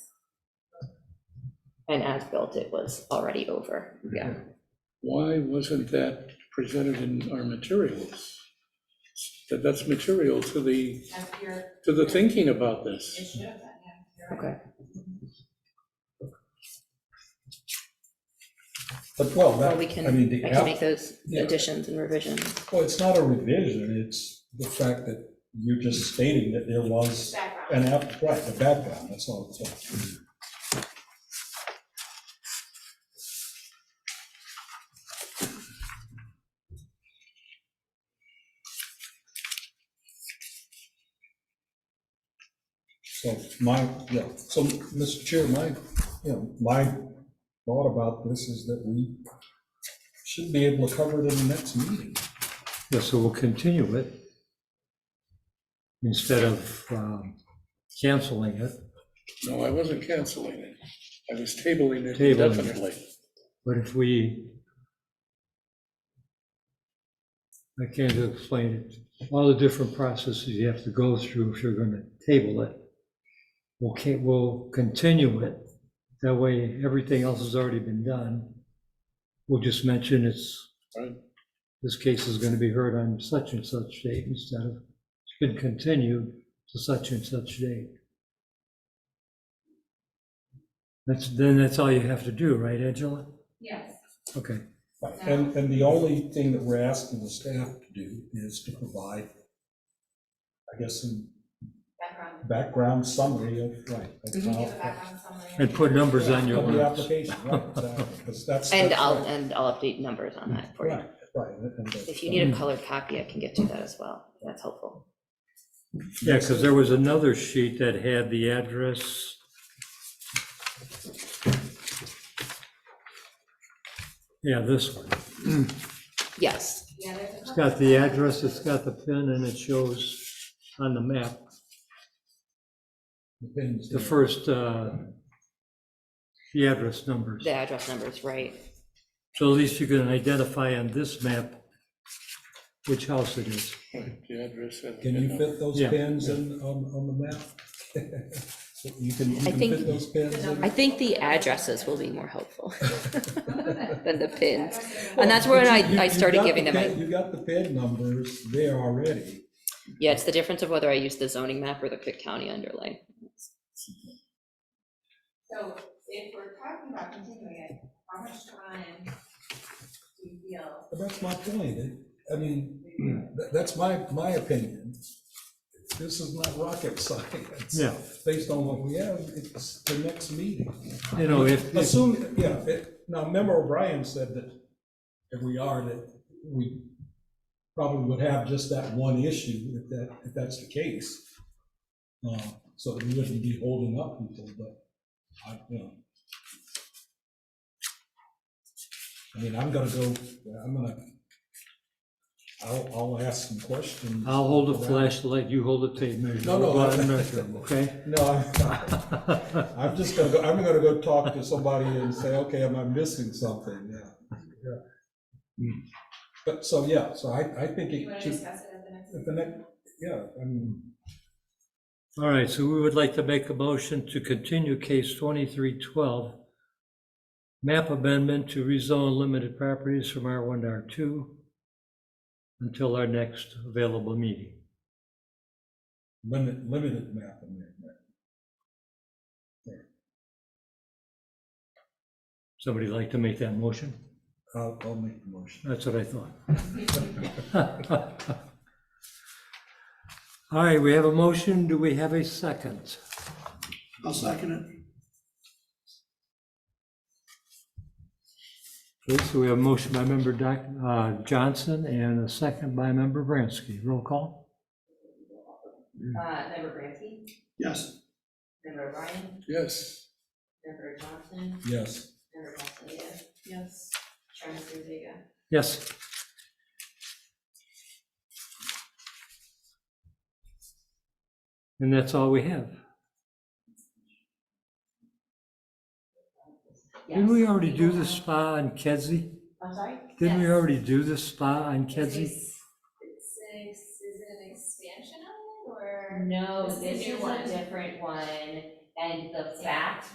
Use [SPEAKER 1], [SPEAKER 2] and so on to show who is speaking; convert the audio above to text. [SPEAKER 1] and as-built, it was already over, yeah.
[SPEAKER 2] Why wasn't that presented in our materials? That, that's material to the,
[SPEAKER 3] That's your,
[SPEAKER 2] to the thinking about
[SPEAKER 3] it
[SPEAKER 2] this.
[SPEAKER 3] should have been, yeah. you're
[SPEAKER 1] Okay,
[SPEAKER 3] right.
[SPEAKER 4] But, well,
[SPEAKER 1] well,
[SPEAKER 4] that,
[SPEAKER 1] we
[SPEAKER 4] I
[SPEAKER 1] can,
[SPEAKER 4] mean, the
[SPEAKER 1] I can
[SPEAKER 4] app,
[SPEAKER 1] make those
[SPEAKER 4] yeah.
[SPEAKER 1] additions and revisions.
[SPEAKER 4] well, it's not a revision, it's the fact that you're just stating that there was
[SPEAKER 3] Background.
[SPEAKER 4] an app, right, the background, that's all. it's all. So my, yeah, so, Mr. Chair, my, you know, my thought about this is that we should be able to cover it in the next meeting.
[SPEAKER 5] Yeah, so we'll continue it instead of um, canceling it,
[SPEAKER 2] No, I wasn't canceling it. I was tabling it
[SPEAKER 5] Tabling it.
[SPEAKER 2] indefinitely.
[SPEAKER 5] but if we, I can't explain it, all the different processes you have to go through if you're gonna table it. We'll, ca- we'll continue it, that way everything else has already been done. We'll just mention it's,
[SPEAKER 2] Right.
[SPEAKER 5] this case is gonna be heard on such and such date instead of, it's been continued to such and such date. That's, then that's all you have to do, right, Angela?
[SPEAKER 3] Yes,
[SPEAKER 5] Okay,
[SPEAKER 4] And, and the only thing that we're asking the staff to do is to provide, I guess, some
[SPEAKER 3] background.
[SPEAKER 4] background summary of, right. of
[SPEAKER 1] Mhm.
[SPEAKER 3] You give a
[SPEAKER 4] how-
[SPEAKER 3] background summary.
[SPEAKER 5] Oh. and put numbers on your
[SPEAKER 4] Of the
[SPEAKER 5] maps.
[SPEAKER 4] application, right, exactly, because that's.
[SPEAKER 1] And
[SPEAKER 4] that's
[SPEAKER 1] I'll,
[SPEAKER 4] right.
[SPEAKER 1] and I'll update numbers on that for you.
[SPEAKER 4] Right, Mm-hmm. right. and- and that's-
[SPEAKER 1] If you need a colored copy, I can get you that as well, if that's helpful.
[SPEAKER 5] Yeah, because there was another sheet that had the address. Yeah, this one.
[SPEAKER 1] Yes,
[SPEAKER 3] Yeah, there's a
[SPEAKER 5] It's
[SPEAKER 3] couple
[SPEAKER 5] got the
[SPEAKER 3] of-
[SPEAKER 5] address, it's got the pin, and it shows on the map,
[SPEAKER 4] Depends.
[SPEAKER 5] the first, uh, the address numbers.
[SPEAKER 1] the address numbers, right,
[SPEAKER 5] So at least you can identify on this map which house it is.
[SPEAKER 2] Right, The address. and the
[SPEAKER 4] Can you
[SPEAKER 2] number.
[SPEAKER 4] fit those
[SPEAKER 5] Yeah.
[SPEAKER 4] pins in, on, on the map? So You can, you
[SPEAKER 1] I
[SPEAKER 4] can
[SPEAKER 1] think-
[SPEAKER 4] fit those pins in?
[SPEAKER 1] I think the addresses will be more helpful than the pins.
[SPEAKER 4] Well,
[SPEAKER 1] And that's when
[SPEAKER 4] Oh, but you-
[SPEAKER 1] I-
[SPEAKER 4] you-
[SPEAKER 1] I
[SPEAKER 4] you've
[SPEAKER 1] started
[SPEAKER 4] got
[SPEAKER 1] giving
[SPEAKER 4] the
[SPEAKER 1] them my-
[SPEAKER 4] pin- You got the pin numbers there already.
[SPEAKER 1] Yeah, it's the difference of whether I use the zoning map or the Cook County underlay.
[SPEAKER 3] So if we're talking about continuing it, how much time do you feel?
[SPEAKER 4] But That's my point. It- I mean, tha- that's my, my opinion. This is not rocket science.
[SPEAKER 5] Yeah.
[SPEAKER 4] Based on what we have, it's the next meeting.
[SPEAKER 5] You know, if, if-
[SPEAKER 4] Assume, yeah, it- now, Member O'Brien said that if we are, that we probably would have just that one issue if that, if that's the case. Uh, So we wouldn't be holding up people, but I, you know. I mean, I'm gonna go, I'm gonna, I'll, I'll ask some questions.
[SPEAKER 5] I'll hold a flashlight, you hold a tape measure.
[SPEAKER 4] No, no,
[SPEAKER 5] We'll go out and
[SPEAKER 4] I-
[SPEAKER 5] measure 'em, Okay?
[SPEAKER 4] No, I'm not. I'm just gonna go, I'm gonna go talk to somebody and say, okay, am I missing something? Yeah. yeah. But, so, yeah, so I, I think
[SPEAKER 3] Do you want
[SPEAKER 4] it
[SPEAKER 3] to
[SPEAKER 4] should,
[SPEAKER 3] discuss it at the next?
[SPEAKER 4] at the next, yeah, I mean,
[SPEAKER 5] All right, so we would like to make a motion to continue case 2312, map amendment to rezone limited properties from R1 to R2 until our next available meeting.
[SPEAKER 4] limit, limited map in there.
[SPEAKER 5] Somebody like to make that motion?
[SPEAKER 4] I'll, I'll make the motion.
[SPEAKER 5] That's what I thought. All right, we have a motion. Do we have a second?
[SPEAKER 6] I'll second it.
[SPEAKER 5] Okay, so we have a motion by member Doc- uh, Johnson and a second by member Bransky. Roll call?
[SPEAKER 3] Uh, member Branty,
[SPEAKER 6] Yes,
[SPEAKER 3] member Ryan,
[SPEAKER 2] Yes,
[SPEAKER 3] member Johnson,
[SPEAKER 4] Yes,
[SPEAKER 3] member Castaneda. Yes. Chairman Zuniga.
[SPEAKER 5] Yes. And that's all we have. Didn't we
[SPEAKER 3] Yes.
[SPEAKER 5] already do the spa on Kedzie?
[SPEAKER 3] I'm sorry?
[SPEAKER 5] Didn't we
[SPEAKER 3] Yes.
[SPEAKER 5] already do the spa on
[SPEAKER 7] It's
[SPEAKER 5] Kedzie?
[SPEAKER 7] a- It's an, ex- is it an expansion of it, or?
[SPEAKER 3] No,
[SPEAKER 7] This is
[SPEAKER 3] this
[SPEAKER 7] a
[SPEAKER 3] is
[SPEAKER 7] new
[SPEAKER 3] a
[SPEAKER 7] one.
[SPEAKER 3] different one, and the fact